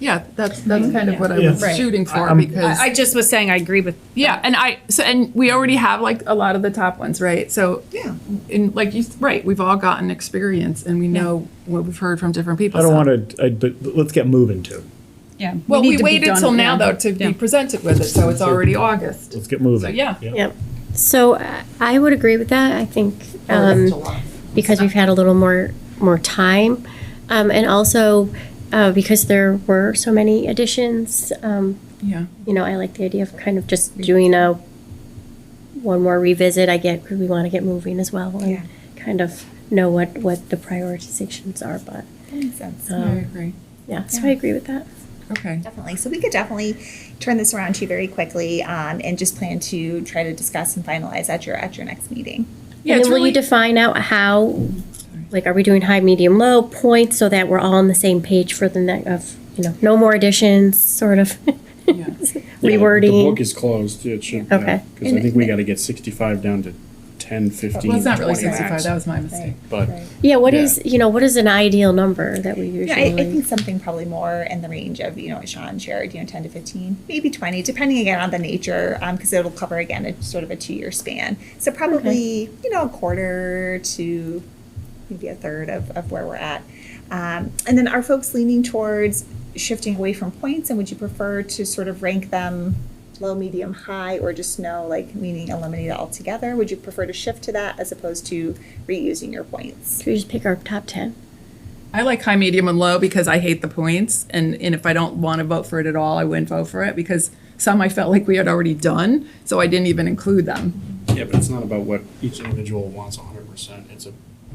Yeah, that's, that's kind of what I was Right. shooting for I'm- because, I, I just was saying I agree with. yeah, and I, so, and we already have like a lot of the top ones, right? So, yeah, and like you, right, we've all gotten experience and we know what we've heard from different people. I don't so- want to, but but let's get moving too. Yeah. Well, need we to be waited done till now though to Yeah. be presented with it, so it's already August. Let's get moving. So, yeah. Yep. So uh, I would agree with that. I think Or um, July. because we've had a little more more time, um, and also uh, because there were so many additions. Um, Yeah. you know, I like the idea of kind of just doing a one more revisit. I get 'cause we want to get moving as well and Yeah. kind of know what what the prioritizations are. But Makes sense. I agree. yeah, so I Yeah. agree with that. Okay. Definitely. So we could definitely turn this around too very quickly um, and just plan to try to discuss and finalize at your at your next meeting. Yeah, and it's then will really, you define out how, like, are we doing high, medium, low points so that we're all on the same page for the next of you know no more additions, sort of Yeah. Yeah, rewording. The book is closed, it should, Okay. because I think we gotta get sixty-five down to 10, 15, well, it's not really 20 max. 65, that was my mistake. But, yeah, what Yeah. is you know what is an ideal number that we usually? Yeah, I, I think something probably more in the range of you know what Sean shared, you know, ten to fifteen, maybe twenty, depending again on the nature, because it'll cover again a sort of a two-year span. So probably you know a quarter to maybe a third of, of where we're at. Um, and then are folks leaning towards shifting away from points, and would you prefer to sort of rank them low, medium, high, or just no, like meaning eliminate it altogether? Would you prefer to shift to that as opposed to reusing your points? Should we just pick our top ten? I like high, medium, and low because I hate the points, and and if I don't want to vote for it at all, I wouldn't vote for it because some I felt like we had already done, so I didn't even include them. yeah, but it's not about what each individual wants hundred percent, it's a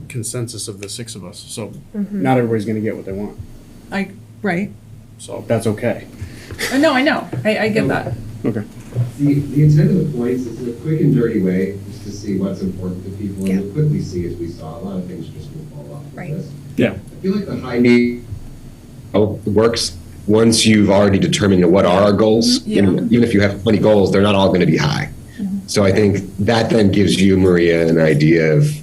consensus of the six of us, so not everybody's gonna get what they want, I right? Uh, so that's okay. No, I know. I, I get that. Okay. The, the intent of the points is a quick and dirty way just to see what's important to people and you'll quickly see, as we saw, a lot of things just will fall off Right. of this. Yeah. I feel like the high need oh, works once you've already determined what are our goals. Yeah. And even if you have 20 goals, they're not all going to be high. So I think that then gives you, Maria, an idea of,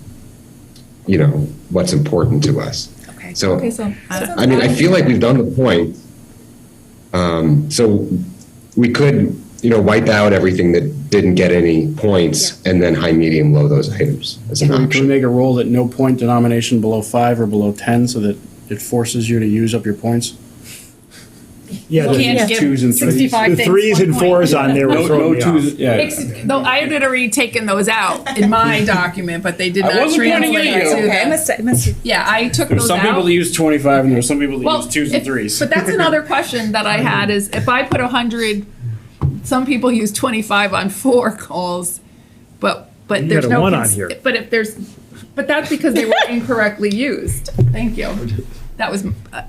you know, what's important to us. Okay. So Okay, so I mean, I feel like we've done the point. Um, so we could, you know, wipe out everything that didn't get any points and then high, medium, low those items as an Can we option. make a rule that no point denomination below five or below ten, so that it forces you to use up your points? Yeah, You the- can't give Twos and threes. 65 the things threes one and point. fours on there were No, no throwing me twos, off. yeah. Ex- Though I had already taken those out in my document, but they did I not wasn't pointing translate at you. to Okay, I them. must, I must Yeah, I took There's those some out. people that use twenty-five, and there's some people that Well, use twos and if- threes. But that's another question that I had is if I put a hundred, some people use twenty-five on four calls, but, but You there's got a no. one cons- on here. But if there's, but that's because they were incorrectly used. Thank you. That was, uh,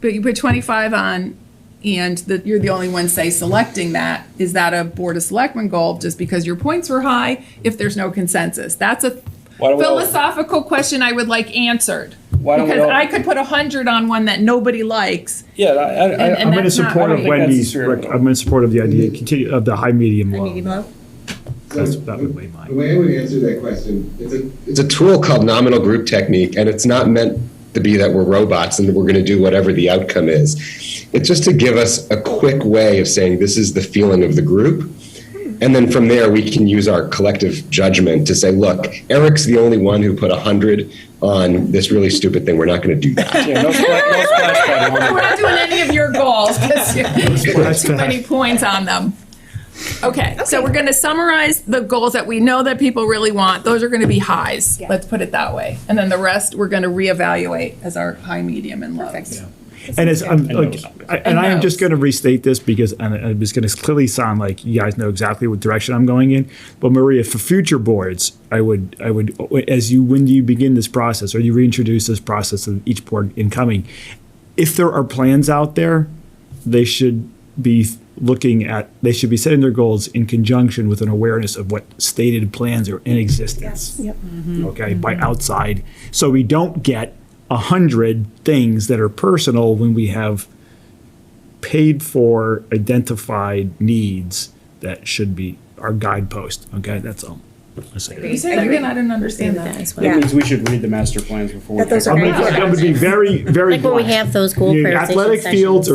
but you put twenty-five on and that you're the only one say selecting that. Is that a Board of Selectmen goal just because your points were high if there's no consensus? That's a Why don't we all- philosophical question I would like answered. Why don't we Because all- I could put a hundred on one that nobody likes. Yeah, I, I, I- and I'm going to that's not- support I of don't think that's Wendy's, fair. rec- I'm in support of the idea, continue, of the high, medium, low. low. That's, that would weigh mine. The way I would answer that question, it's a, it's a tool called nominal group technique, and it's not meant to be that we're robots and that we're going to do whatever the outcome is. It's just to give us a quick way of saying this is the feeling of the group. And then from there, we can use our collective judgment to say, look, Eric's the only one who put 100 on this really stupid thing. We're not going to do that. yeah, no spla- no splash pad on it. We're not doing any of your goals because you put too many points on them. Okay, so we're going to summarize the goals that we know that people really want. Those are going to be highs. Let's put it that way. And then the rest, we're going to reevaluate as our high, medium, and low. And it's, I'm like, those. I- and I am just those. going to restate this because, and it was going to clearly sound like you guys know exactly what direction I'm going in. But Maria, for future boards, I would, I would, as you, when you begin this process or you reintroduce this process of each board incoming, if there are plans out there, they should be looking at, they should be setting their goals in conjunction with an awareness of what stated plans are in existence Yep. okay, by outside. So we don't get a hundred things that are personal when we have paid for identified needs that should be our guidepost. Okay, that's all. I say that. You say that again, I didn't understand that. As well. That means we should read the master plans before. we That those pick are I'm them. gonna- I'm gonna be very, very. Like when we blunt. have those goal The prioritization Athletic fields sessions. are